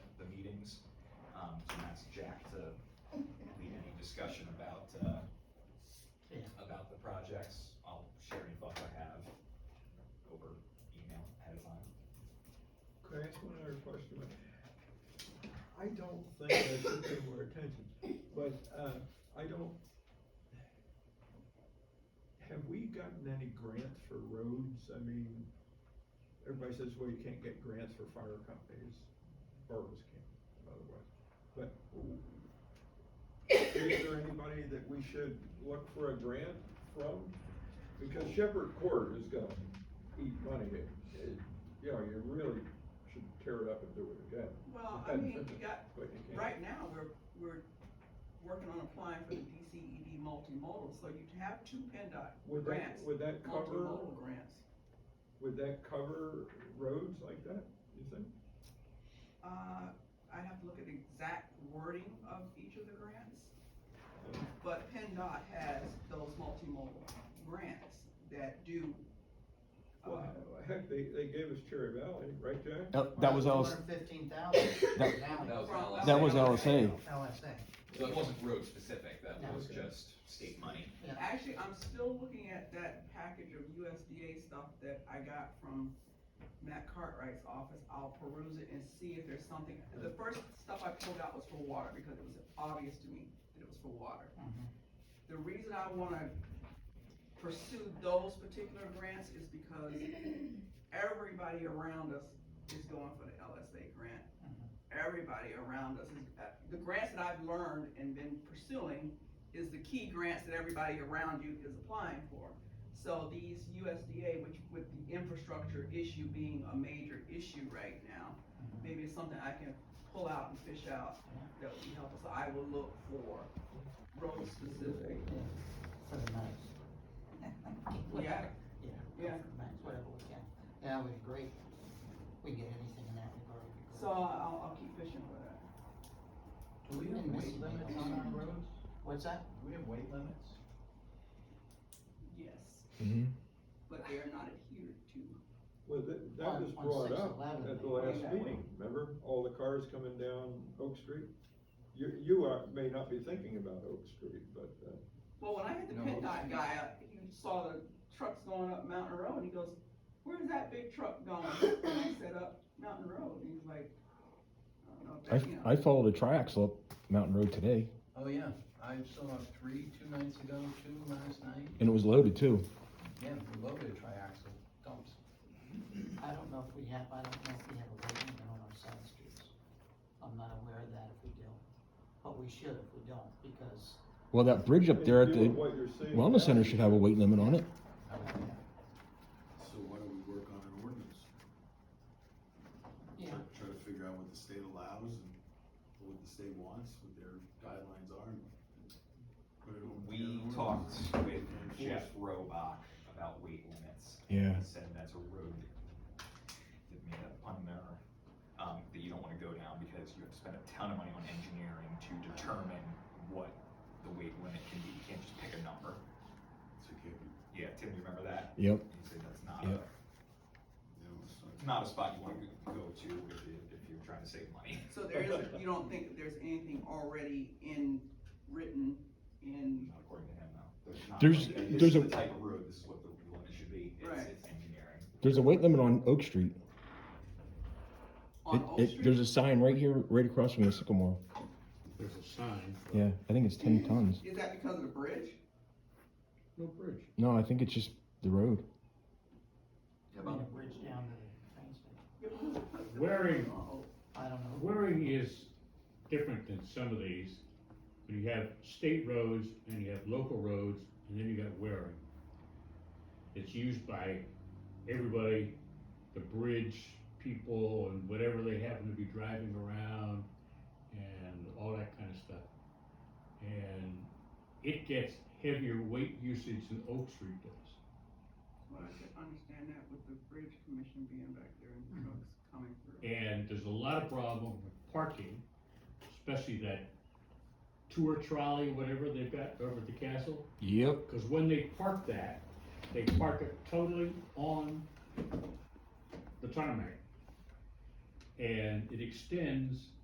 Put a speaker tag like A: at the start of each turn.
A: Um, discussion about, uh, about the projects. I'll share any thoughts I have over email ahead of time.
B: Could I ask one other question? I don't think I should pay more attention, but, uh, I don't. Have we gotten any grants for roads? I mean, everybody says, well, you can't get grants for fire companies, boroughs can't, by the way. But is there anybody that we should look for a grant from? Because Shepherd Court is gonna eat money, It- it- you know, you really should tear it up and do it again.
C: Well, I mean, you got,
B: But you can't.
C: right now, we're, we're working on applying for the DCED multimodal, so you'd have two E PennDOT
B: Would that,
C: grants,
B: would that cover,
C: multimodal grants.
B: would that cover roads like that, you think?
C: Uh, I'd have to look at the exact wording of each of the grants. But E PennDOT has those multimodal grants that do. uh,
B: Well, heck, they, they gave us Cherry Valley, right, Jack?
D: No, that was all,
E: Fifteen thousand,
D: That-
E: now,
A: was
C: from-
A: LSA.
D: that was LSA.
E: LSA,
A: So it wasn't road specific, that
E: No.
A: was just state money.
E: yeah,
C: Actually, I'm still looking at that package of USDA stuff that I got from Matt Cartwright's office. I'll peruse it and see if there's something. The first stuff I pulled out was for water because it was obvious to me that it was for water.
E: Mhm.
C: The reason I wanna pursue those particular grants is because everybody around us is going for the LSA grant. Everybody around us is, uh, the grants that I've learned and been pursuing is the key grants that everybody around you is applying for. So these USDA, which with the infrastructure issue being a major issue right now, maybe it's something I can pull out and fish out that would be helpful. So I will look for road specific.
E: for the night.
C: Yeah,
E: Yeah.
C: Yeah.
E: For the night, whatever we can, yeah, we agree, we get anything in that regard. it'd be
C: so
E: great.
C: I'll, I'll keep fishing for that.
F: Do we have weight limits on our roads?
E: What's that?
F: Do we have weight limits?
C: Yes,
D: Mhm.
C: but they are not adhered to.
B: Well, that, that was
E: On- on
B: brought up
E: 611,
B: at the
E: they
B: last
C: bring that
B: meeting, remember? All the cars coming down Oak Street? You, you are, may not be thinking about Oak Street, but, uh,
C: Well, when I had the
F: No.
C: PennDOT guy up, he saw the trucks going up Mountain Road and he goes, where's that big truck going? And I said, up Mountain Road. And he's like, I don't know if that, you know.
D: I, I follow the tracks up Mountain Road today,
F: Oh, yeah, I saw three, two nights ago, two last night,
D: and it was loaded too.
F: yeah, we loaded triaxle dumps.
E: I don't know if we have, I don't know if we have a weight limit on our side streets, I'm not aware of that if we do, but we should if we don't, because.
D: Well, that bridge up there at
B: doing
D: the
B: what you're seeing now.
D: wellness center should have a weight limit on it.
F: I would think.
G: So why don't we work on an ordinance?
E: Yeah,
G: Try- Try to figure out what the state allows and what the state wants, what their guidelines are. and put it on their
A: We
G: ordinance.
A: talked with Jeff
G: Enforce.
A: Robach about weight limits.
D: Yeah.
A: He said that's a road that, did me a pun there, um, that you don't wanna go down because you have to spend a ton of money on engineering to determine what the weight limit can be. You can't just pick a number.
G: So it can't be,
A: Yeah, Tim, you remember that?
D: Yep.
A: He said that's not a,
D: Yep.
G: you know, it's
A: it's
G: not-
A: not a spot you wanna go to if you, if you're trying to save money.
C: So there is, you don't think that there's anything already in, written in,
A: Not according to him, no. There's not
D: There's-
A: like, this is
D: there's a-
A: the type of road, this is what the limit should be. It's-
C: Right.
A: It's engineering.
D: There's a weight limit on Oak Street. It,
C: on Oak
D: it, there's
C: Street?
D: a sign right here, right across from the Sycamore.
G: There's a sign. but-
D: Yeah, I think it's ten tons.
C: Is that because of the bridge?
G: No bridge.
D: No, I think it's just the road.
E: I mean, a bridge down to the train station,
H: Waring,
E: I don't know.
H: Waring is different than some of these. When you have state roads and you have local roads, and then you got Waring. It's used by everybody, the bridge people and whatever they happen to be driving around and all that kind of stuff. And it gets heavier weight usage than Oak Street does.
C: Well, I could understand that with the bridge commission being back there and trucks coming through.
H: And there's a lot of problem with parking, especially that tour trolley, whatever they've got over at the castle.
D: Yep.
H: Cause when they park that, they park it totally on the tarmac. And it extends